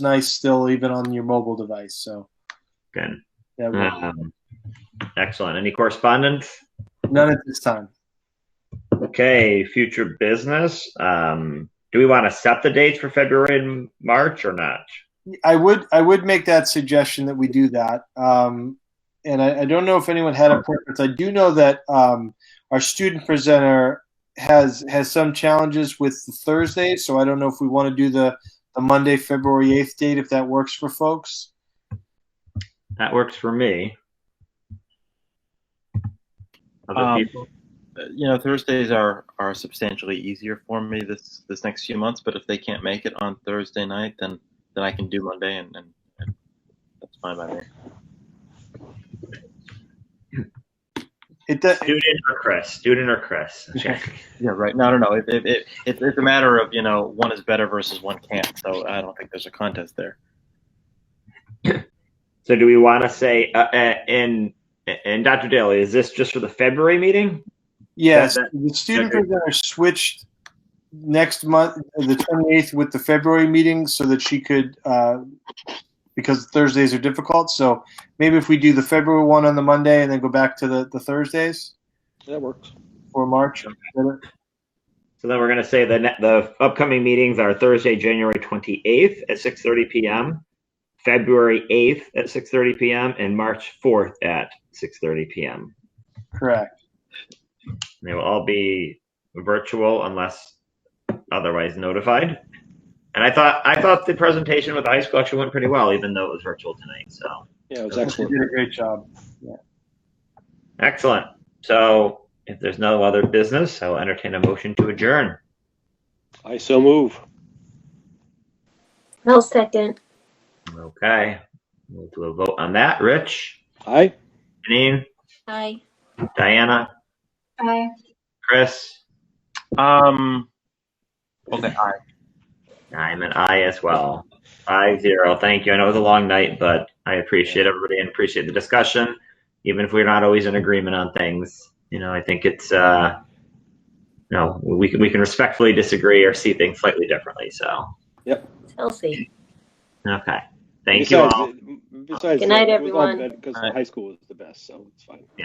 nice still even on your mobile device. So Good. that works. Um, excellent. Any correspondence? none at this time. Okay, future business. Um, do we want to set the dates for February and March or not? I would I would make that suggestion that we do that. Um, and I, I don't know if anyone had a preference. I do know that um, our student presenter has has some challenges with the Thursday, so I don't know if we want to do the the Monday, February eighth date if that works for folks. That works for me. Other Um, people? you know Thursdays are are substantially easier for me this this next few months. But if they can't make it on Thursday night, then then I can do Monday, and, and, and that's fine by me. It does. Student or Chris? Student or Chris? Check. Yeah, right. No, no, no. It, it, it, it, it's a matter of you know one is better versus one can't. So I don't think there's a contest there. so, do we want to say, uh, uh, and and Dr. Daly, is this just for the February meeting? Yes, That- the student that- presenter switched next month, the 28th, with the February meeting so that she could, uh, because Thursdays are difficult. So maybe if we do the February one on the Monday and then go back to the, the Thursdays That works. for March. So then we're going to say the ne- the upcoming meetings are Thursday, January 28th at 6:30 p.m., February 8th at 6:30 p.m., and March 4th at 6:30 p.m. Correct. They will all be virtual unless otherwise notified. And I thought I thought the presentation with the high school actually went pretty well, even though it was virtual tonight. So Yeah, it was You excellent. did a great job. excellent. So if there's no other business, I will entertain a motion to adjourn. I so move. I'll second. Okay, we'll do a vote on that. Rich, Aye. Janine, Aye. Diana, Aye. Chris, Um. Okay. I, I'm an I as well. Five zero. Thank you. I know it was a long night, but I appreciate everybody and appreciate the discussion, even if we're not always in agreement on things. You know, I think it's uh, no, we can we can respectfully disagree or see things slightly differently. So Healthy. okay, thank besides, you all. Besides, Good night, it was all everyone. bad Because All right. high school was the best, so it's fine.